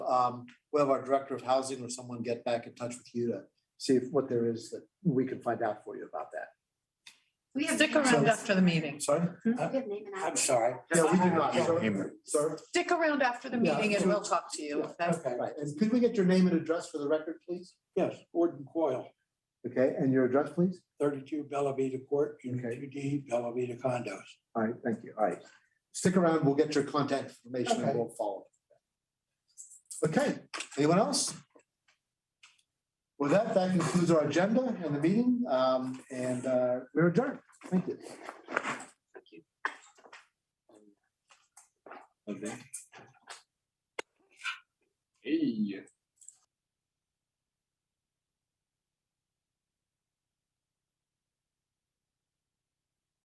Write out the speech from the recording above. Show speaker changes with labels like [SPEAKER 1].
[SPEAKER 1] um, we'll have our director of housing or someone get back in touch with you to see if what there is that we can find out for you about that.
[SPEAKER 2] We have.
[SPEAKER 3] Stick around
[SPEAKER 2] names.
[SPEAKER 3] after the meeting.
[SPEAKER 1] Sorry?
[SPEAKER 2] We have name and
[SPEAKER 4] I'm
[SPEAKER 2] address.
[SPEAKER 4] sorry.
[SPEAKER 1] Yeah, we do not.
[SPEAKER 4] Yeah.
[SPEAKER 1] Sir? Sir?
[SPEAKER 3] Stick around after the
[SPEAKER 1] Yeah.
[SPEAKER 3] meeting and we'll talk to you. That's-
[SPEAKER 4] Okay,
[SPEAKER 1] Right, and could we get your name and address for the record, please?
[SPEAKER 4] yes, Gordon Coyle,
[SPEAKER 1] Okay, and your address, please?
[SPEAKER 4] thirty-two Bella Vita Court,
[SPEAKER 1] Okay.
[SPEAKER 4] Unit two D, Bella Vita condos.
[SPEAKER 1] All right, thank you. All right. Stick around, we'll get your contact information and
[SPEAKER 4] Okay.
[SPEAKER 1] we'll follow. Okay, anyone else? With that, that concludes our agenda and the meeting, um, and, uh, we're adjourned. Thank you.
[SPEAKER 5] Okay.